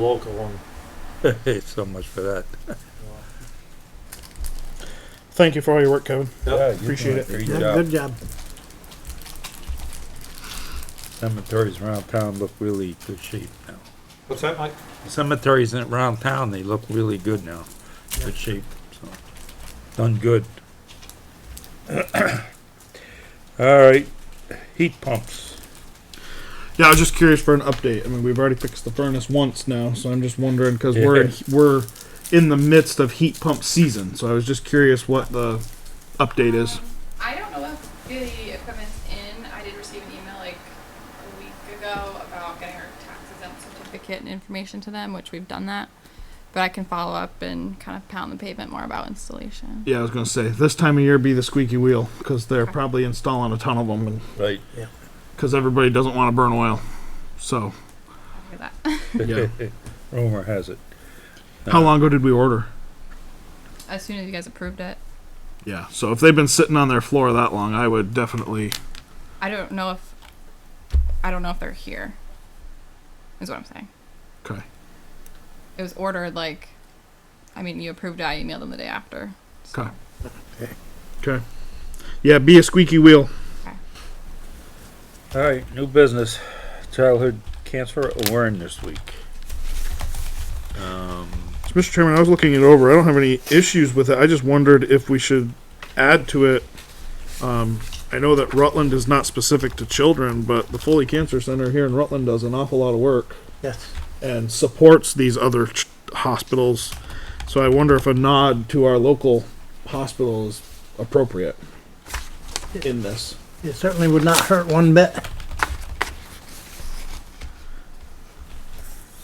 local one. Hey, so much for that. Thank you for all your work, Kevin. Yep. Appreciate it. Great Yeah, job. Good job. Cemeteries around town look really good shape now. What's that, Mike? Cemeteries in- around town, they look really good now. Good shape, so, done good. All right, heat pumps. Yeah, I was just curious for an update. I mean, we've already fixed the furnace once now, so I'm just wondering because we're in, we're in the midst of heat pump season. So I was just curious what the update is. I don't know if the equipment's in. I did receive an email like a week ago about getting our tax exempt certificate and information to them, which we've done that. But I can follow up and kind of pound the pavement more about installation. Yeah, I was gonna say this time of year be the squeaky wheel because they're probably installing a ton of them Right. because everybody doesn't want to burn oil. So Look at that. yeah, Rumor has it. how long ago did we order? As soon as you guys approved it. Yeah, so if they've been sitting on their floor that long, I would definitely. I don't know if I don't know if they're here. Is what I'm saying. Okay. It was ordered like I mean you approved it, I emailed them the day after. So Okay. Okay. Yeah, be a squeaky wheel. All right, new business, childhood cancer awareness week. Um, So, Mr. Chairman, I was looking it over. I don't have any issues with it. I just wondered if we should add to it. Um, I know that Rutland is not specific to children, but the Foley Cancer Center here in Rutland does an awful lot of work Yes. and supports these other ch- hospitals. So I wonder if a nod to our local hospital is appropriate in this. It certainly would not hurt one bit.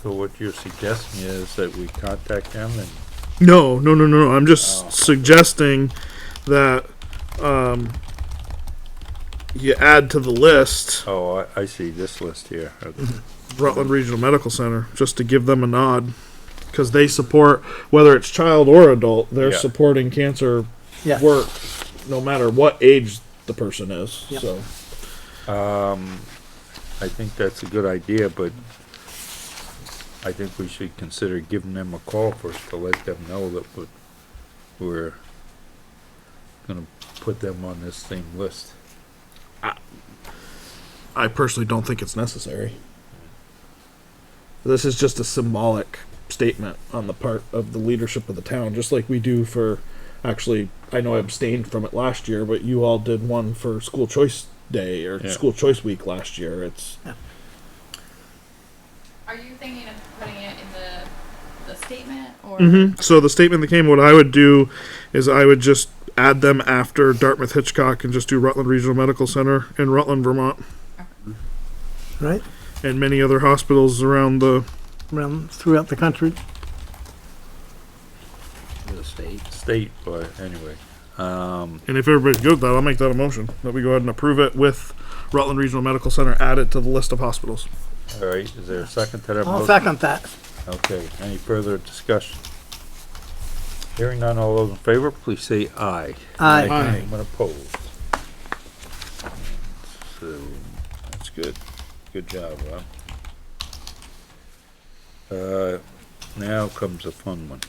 So what you're suggesting is that we contact them and No, no, no, no, no. I'm just Oh. suggesting that um, you add to the list. Oh, I, I see this list here. Okay. Rutland Regional Medical Center just to give them a nod because they support whether it's child or adult they're Yeah. supporting cancer Yeah. work no matter what age the person is Yep. so Um, I think that's a good idea, but I think we should consider giving them a call first to let them know that we- we're gonna put them on this same list. I personally don't think it's necessary this is just a symbolic statement on the part of the leadership of the town just like we do for actually I know I abstained from it last year but you all did one for school choice day or Yeah. school choice week last year it's are you thinking of putting it in the the statement or hmm So the statement that came, what I would do is I would just add them after Dartmouth Hitchcock and just do Rutland Regional Medical Center in Rutland, Vermont, Right? and many other hospitals around the. Around throughout the country. The state? State, but anyway, um, And if everybody's good with that, I'll make that a motion that we go ahead and approve it with Rutland Regional Medical Center added to the list of hospitals. all right, is there a second to that I'll motion? second that. Okay, any further discussion? Hearing none, all those in favor, please say aye. Aye. Aye. Anyone opposed? So, that's good. Good job, Rob. Uh, now comes a fun one.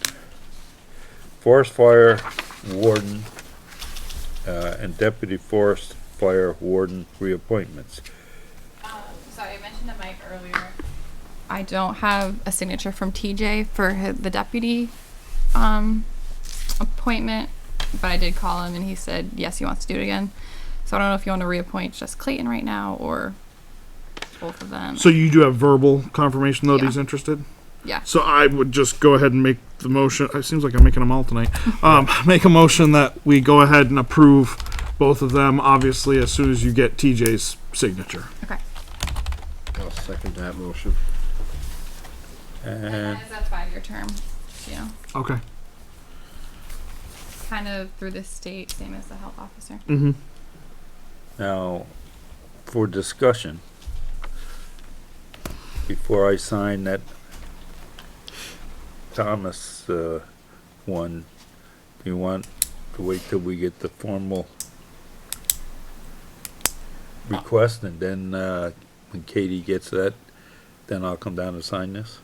Forest fire warden, uh, and deputy forest fire warden reappointments. So Um, I mentioned to Mike earlier. I don't have a signature from TJ for hi- the deputy um, appointment, but I did call him and he said yes, he wants to do it again. So I don't know if you want to reappoint just Clayton right now or both of them. So you do have verbal confirmation though that Yeah. he's interested. Yeah. So I would just go ahead and make the motion. It seems like I'm making them all tonight. Um, make a motion that we go ahead and approve both of them. Obviously, as soon as you get TJ's signature. okay. I'll second that motion. And And that's a five-year term, you know, Okay. kind of through the state, same as the health officer. Mm-hmm. Now, for discussion, before I sign that Thomas, uh, one, do you want to wait till we get the formal request and then, uh, when Katie gets that, then I'll come down and sign this?